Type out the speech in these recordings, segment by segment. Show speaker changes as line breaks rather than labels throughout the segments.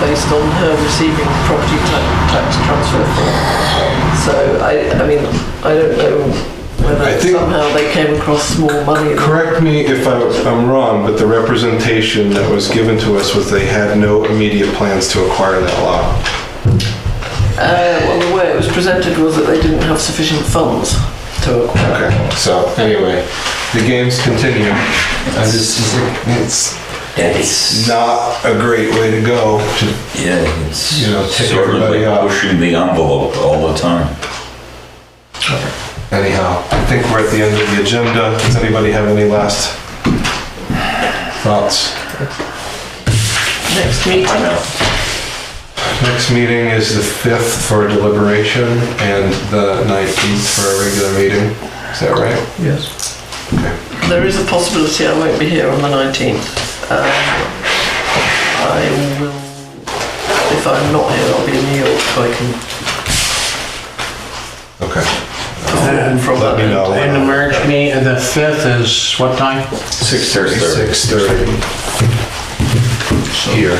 based on her receiving property ta- tax transfer form. So I, I mean, I don't know whether
I think-
somehow they came across small money.
Correct me if I'm, I'm wrong, but the representation that was given to us was they had no immediate plans to acquire that lot.
Uh, well, the way it was presented was that they didn't have sufficient funds to acquire.
Okay, so anyway, the games continue. I just, it's
It's
not a great way to go. to-
yeah, it's
You know, tick
sort of
everybody
like
off.
pushing the envelope all the time.
Anyhow, I think we're at the end of the agenda. Does anybody have any last thoughts?
Next meeting.
Next meeting is the 5th for deliberation and the 19th for a regular meeting. Is that right?
Yes. There is a possibility I won't be here on the 19th. Um, I will, if I'm not here, I'll be in New York, so I can
Okay.
perform from
Let
that.
me know.
And the merge meet, the fifth is what time?
6:30.
6:30. Here.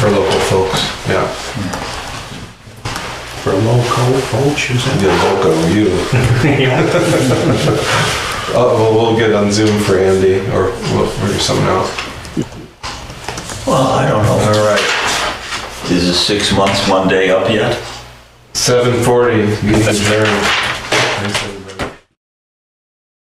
For local folks, yeah.
For local vultures.
The loco, you.
Yeah.
Uh, well, we'll get on Zoom for Andy or we'll figure something out.
Well, I don't
All right.
Is it six months, one day up yet?
7:40, meeting adjourned.